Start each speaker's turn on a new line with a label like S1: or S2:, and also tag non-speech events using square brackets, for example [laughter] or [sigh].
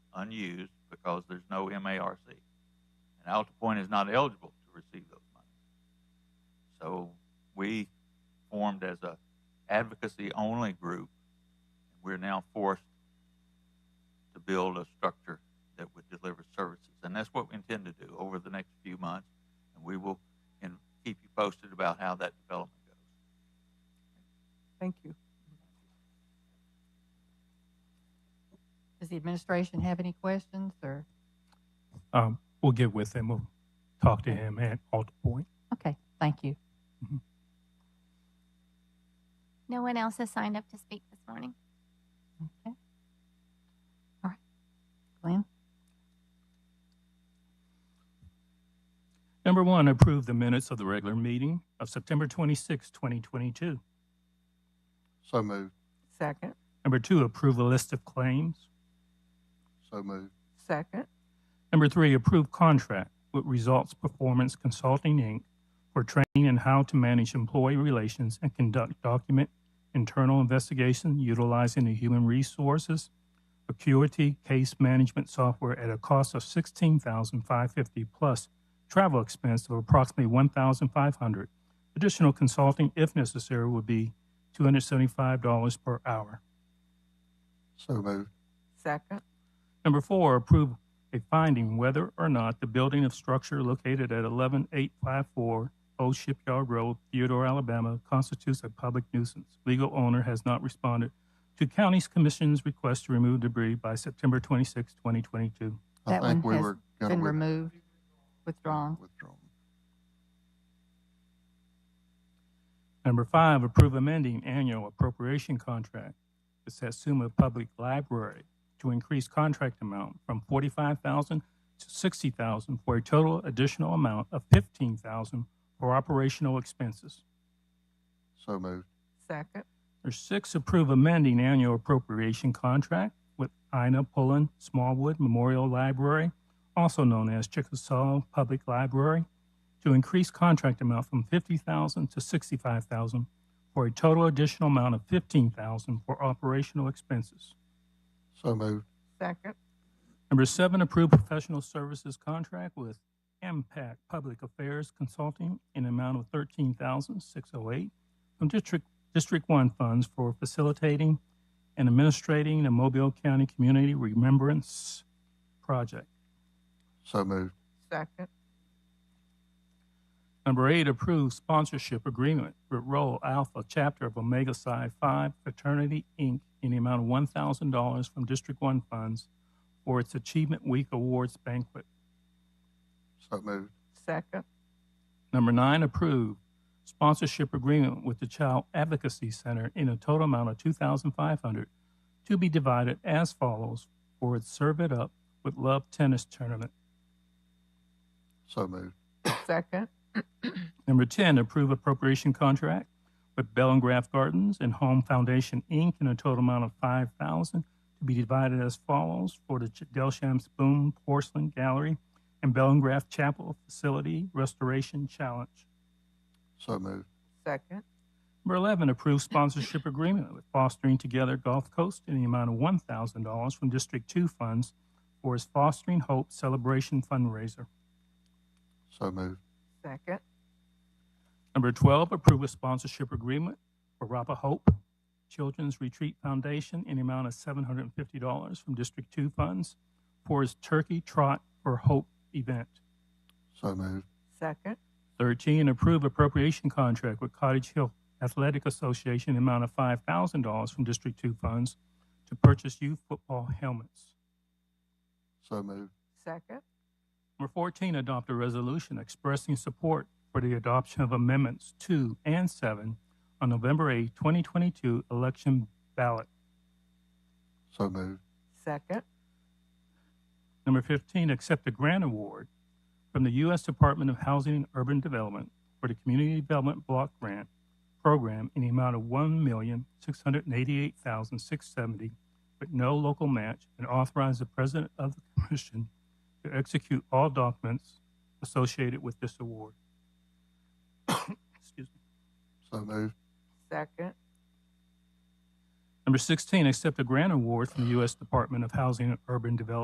S1: unused because there's no MARC. And Alta Point is not eligible to receive those monies. So we formed as a advocacy-only group. We're now forced to build a structure that would deliver services. And that's what we intend to do over the next few months. And we will in- keep you posted about how that development goes.
S2: Thank you.
S3: Does the administration have any questions or?
S4: Um, we'll get with him. We'll talk to him at Alta Point.
S3: Okay, thank you.
S5: No one else has signed up to speak this morning.
S3: Okay. All right. Glenn,
S4: Number one, approve the minutes of the regular meeting of September 26, 2022.
S6: So moved.
S2: Second,
S4: Number two, approve a list of claims.
S6: So moved.
S2: second,
S4: Number three, approve contract with Results Performance Consulting, Inc. for training in how to manage employee relations and conduct document internal investigation utilizing the human resources acuity case management software at a cost of $16,550 plus travel expense of approximately $1,500. Additional consulting, if necessary, would be $275 per hour.
S6: So moved.
S2: second,
S4: Number four, approve a finding whether or not the building of structure located at 11854 Old Shipyard Road, Theodore, Alabama constitutes a public nuisance. Legal owner has not responded to county's commission's request to remove debris by September 26, 2022.
S6: I
S3: That
S6: think
S3: one
S6: we
S3: has
S6: were going
S3: been
S6: to
S3: removed, withdrawn.
S6: Withdrawn.
S4: Number five, approve amending annual appropriation contract with Satsuma Public Library to increase contract amount from forty-five thousand to sixty thousand for a total additional amount of fifteen thousand for operational expenses.
S6: So moved.
S2: second,
S4: Number six, approve amending annual appropriation contract with Ina Pullen Smallwood Memorial Library, also known as Chickasaw Public Library, to increase contract amount from fifty thousand to sixty-five thousand for a total additional amount of fifteen thousand for operational expenses.
S6: So moved.
S2: second,
S4: Number seven, approve professional services contract with Impact Public Affairs Consulting in amount of thirteen thousand six oh eight from District, District One funds for facilitating and administrating the Mobile County Community Remembrance Project.
S6: So moved.
S2: second,
S4: Number eight, approve sponsorship agreement with Roll Alpha Chapter of Omega Psi Phi Fraternity, Inc. in the amount of one thousand dollars from District One funds for its Achievement Week Awards banquet.
S6: So moved.
S2: second,
S4: Number nine, approve sponsorship agreement with the Child Advocacy Center in a total amount of two thousand five hundred to be divided as follows for its Serve It Up with Love Tennis Tournament.
S6: So moved.
S2: second,
S4: Number ten, approve appropriation contract with Bell and Graff Gardens and Home Foundation Inc. in a total amount of five thousand to be divided as follows for the Ch- Delsham's Boom Porcelain Gallery and Bell and Graff Chapel Facility Restoration Challenge.
S6: So moved.
S2: second,
S4: Number 11, approve sponsorship agreement with Fostering Together Gulf Coast in the amount of $1,000 from District 2 funds for its Fostering Hope Celebration fundraiser.
S6: So moved.
S2: second,
S4: Number 12, approve a sponsorship agreement for Rapa Hope Children's Retreat Foundation in the amount of $750 from District 2 funds for its Turkey Trot for Hope event.
S6: So moved.
S2: second,
S4: 13, approve appropriation contract with Cottage Hill Athletic Association in amount of $5,000 from District 2 funds to purchase youth football helmets.
S6: So moved.
S2: second,
S4: Number 14, adopt a resolution expressing support for the adoption of amendments 2 and 7 on November 8, 2022 election ballot.
S6: So moved.
S2: second,
S4: Number 15, accept a grant award from the U.S. Department of Housing and Urban Development for the Community Development Block Grant Program in the amount of $1,688,670 with no local match and authorize the President of the Commission to execute all documents associated with this award. [coughs] Excuse me.
S6: So moved.
S2: second,
S4: Number 16, accept a grant award from the U.S. Department of Housing and Urban Development